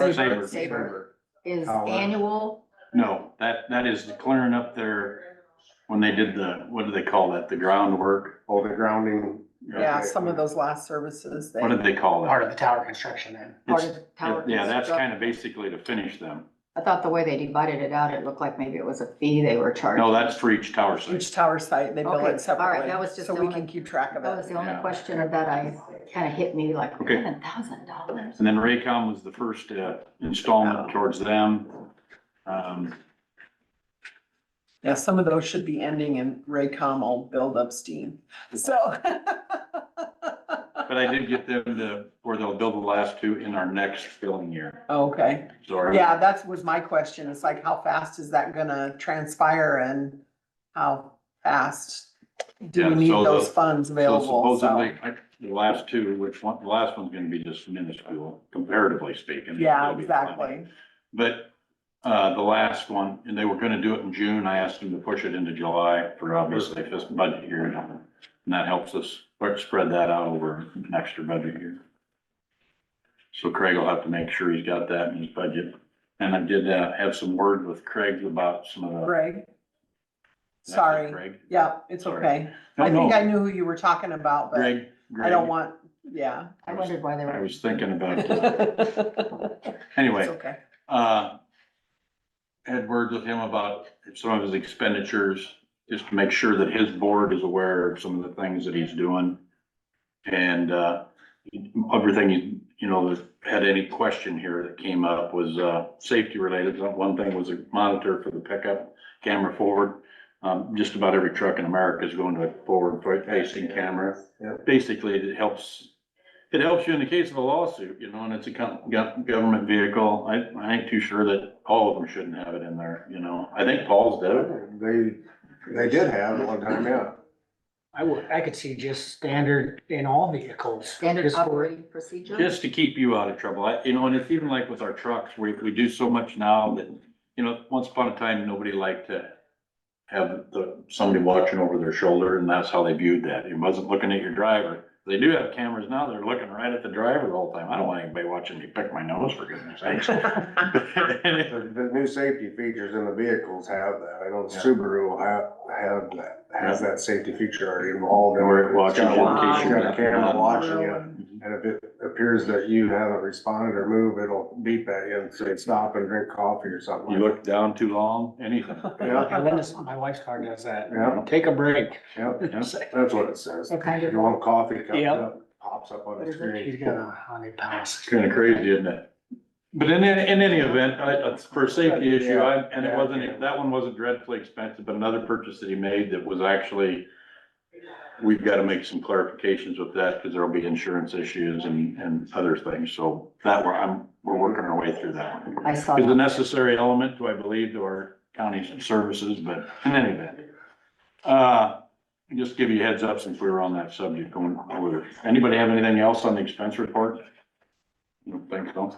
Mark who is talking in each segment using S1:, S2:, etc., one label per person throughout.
S1: Saber.
S2: Saber
S3: is
S1: Howard.
S3: annual,
S2: No, that, that is clearing up their, when they did the, what do they call that, the groundwork?
S1: Oh, the grounding.
S2: Yeah,
S1: Okay.
S4: some of those last services, they,
S2: What did they call
S5: part
S2: that?
S5: of the tower construction then.
S3: part
S2: It's-
S3: of tower.
S2: Yeah, that's
S3: construct-
S2: kind of basically to finish them.
S3: I thought the way they divided it out, it looked like maybe it was a fee they were charging.
S2: No, that's for each tower site.
S4: each tower site, they bill
S3: Okay, all right,
S4: it separately,
S3: that was just
S4: so
S3: the
S4: we
S3: only-
S4: can keep track of
S3: That was
S4: it.
S3: the only
S2: Yeah.
S3: question of that I, kind of hit me like,
S2: Okay.
S3: eleven thousand dollars.
S2: And then Raycom was the first uh, installment towards them. Um,
S4: Yeah, some of those should be ending and Raycom will build up steam, so.
S2: But I did get them to, where they'll build the last two in our next billing year.
S4: Okay,
S2: So
S4: yeah, that was my question, it's like, how fast is that gonna transpire and how fast do
S2: Yeah,
S4: we need
S2: so the-
S4: those funds
S2: So
S4: available, so,
S2: supposedly, I- the last two, which one, the last one's gonna be just minuscule comparatively speaking.
S4: yeah,
S2: It'll be fine.
S4: exactly.
S2: But, uh, the last one, and they were gonna do it in June, I asked them to push it into July for obviously this budget year. And that helps us spread- spread that out over an extra budget year. So Craig will have to make sure he's got that in his budget. And I did, uh, have some word with Craig about some of the.
S4: Greg? Sorry,
S2: Craig?
S4: yeah, it's
S2: Sorry.
S4: okay,
S2: No,
S4: I think
S2: no,
S4: I knew who you were talking about, but
S2: Greg,
S4: I don't
S2: Greg,
S4: want, yeah.
S3: I wondered why they
S2: I
S3: were.
S2: was thinking about, that.
S4: It's
S2: anyway.
S4: okay.
S2: uh, had words with him about some of his expenditures, just to make sure that his board is aware of some of the things that he's doing. And, uh, everything, you- you know, that had any question here that came up was, uh, safety related. One thing was a monitor for the pickup, camera forward. Um, just about every truck in America is going to a forward facing camera.
S1: Yeah.
S2: Basically, it helps it helps you in the case of a lawsuit, you know, and it's a com- gov- government vehicle. I, I ain't too sure that all of them shouldn't have it in there, you know. I think Paul's did.
S1: They, they did have it one time, yeah.
S5: I would, I could see just standard in all vehicles.
S3: Standard
S5: just for-
S3: operating procedure?
S2: Just to keep you out of trouble, I, you know, and it's even like with our trucks, we, we do so much now that, you know, once upon a time, nobody liked to have the, somebody watching over their shoulder and that's how they viewed that. It wasn't looking at your driver. They do have cameras now, they're looking right at the driver the whole time. I don't want anybody watching me pick my nose for goodness sakes. And
S1: The, the new safety features in the vehicles have that. I know the
S2: Yeah.
S1: Subaru will have, have that, has that safety feature already involved. in it.
S2: Where it
S1: It's
S2: watches
S1: got a-
S2: you
S4: in case
S1: it's
S4: you're
S1: Got a
S2: not-
S1: camera
S2: not-
S1: watching you,
S4: Really?
S1: and if it appears that you haven't responded or moved, it'll beep at you and say, stop and drink coffee or something.
S2: You
S1: like
S2: look down too long, anything.
S1: Yeah.
S5: And Linda's, my wife's car does that.
S1: Yeah.
S5: Take a break.
S1: that. Yep,
S2: Yeah.
S1: that's what it says.
S3: They're kind
S1: You
S3: of,
S1: want coffee, cup it
S5: Yep.
S1: up, pops up on
S3: What
S1: the
S3: is it?
S1: screen.
S5: She's got a hundred pounds.
S2: It's kind of crazy, isn't it? But in, any- in any event, I, it's for a safety issue, I, and it wasn't, that one wasn't dreadfully expensive, but another purchase that he made that was actually, we've got to make some clarifications with that because there'll be insurance issues and, and other things. So that we're, I'm, we're working our way through that one.
S3: I saw
S2: It's a
S3: that.
S2: necessary element, do I believe, to our county's services, but in any event. Uh, just give you a heads up since we were on that subject going over. Anybody have anything else on the expense report? I don't think so.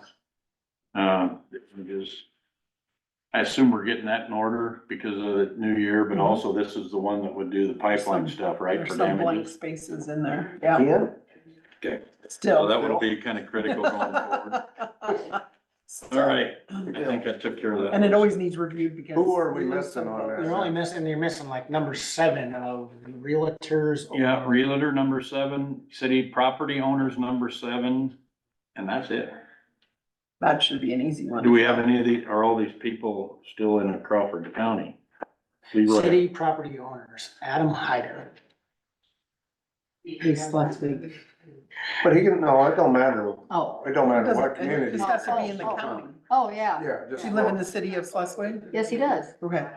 S2: Uh, it is- I assume we're getting that in order because of the new year, but also this is the one that would do the pipeline stuff, right?
S4: There's
S2: For
S4: Mm-hmm. some blank
S2: damages.
S4: spaces in there, yeah,
S1: Yeah.
S2: So
S4: still.
S2: that would be kind of critical going forward. All right, I think I took care of that.
S4: And it always needs reviewed because.
S1: Who are we
S4: lose
S1: missing
S4: some
S1: on
S4: folks.
S5: You're only missing, you're missing like number seven of realtors.
S2: Yeah, realtor number seven, city property owners number seven, and that's it.
S4: That should be an easy one.
S2: Do we have any of the, are all these people still in Crawford County? Leroy,
S5: City property owners, Adam Hyder.
S3: He's last week.
S1: But he can, no, it don't matter.
S3: Oh,
S1: It don't
S4: It
S1: matter
S4: doesn't- It
S1: what community.
S4: just has to be in the
S3: Oh, oh,
S4: county.
S3: oh, yeah.
S1: Yeah, just.
S4: Do you live in the city of Schleswig?
S3: Yes, he does.
S4: Okay,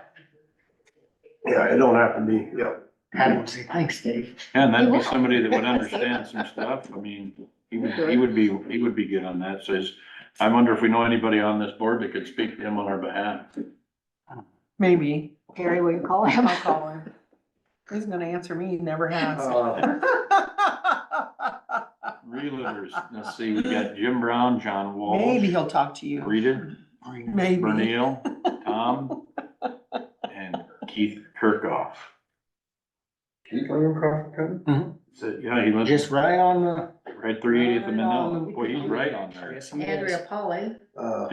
S1: Yeah, it don't have to be, yeah.
S5: Adam would say, thanks, Dave.
S2: and that'd be somebody that would understand some stuff, I mean, he would, he would be, he would be good on that, so it's- I wonder if we know anybody on this board that could speak to him on our behalf.
S4: maybe.
S3: Harry, will you call him?
S4: I'll call him. He's gonna answer me, he never has.
S1: Uh,
S2: Realtors, let's see, we got Jim Brown, John Walsh.
S4: Maybe he'll talk to you.
S2: Rita,
S4: Maybe.
S2: Bernil, Tom, and Keith Kirkhoff.
S1: Do you live in Crawford County?
S2: So, yeah, he lives
S5: just right on the.
S2: right three eightieth of
S5: Right on
S2: Manila. Boy, he's right on there.
S5: Yes, he is.
S3: Andrea Polly.
S1: Uh,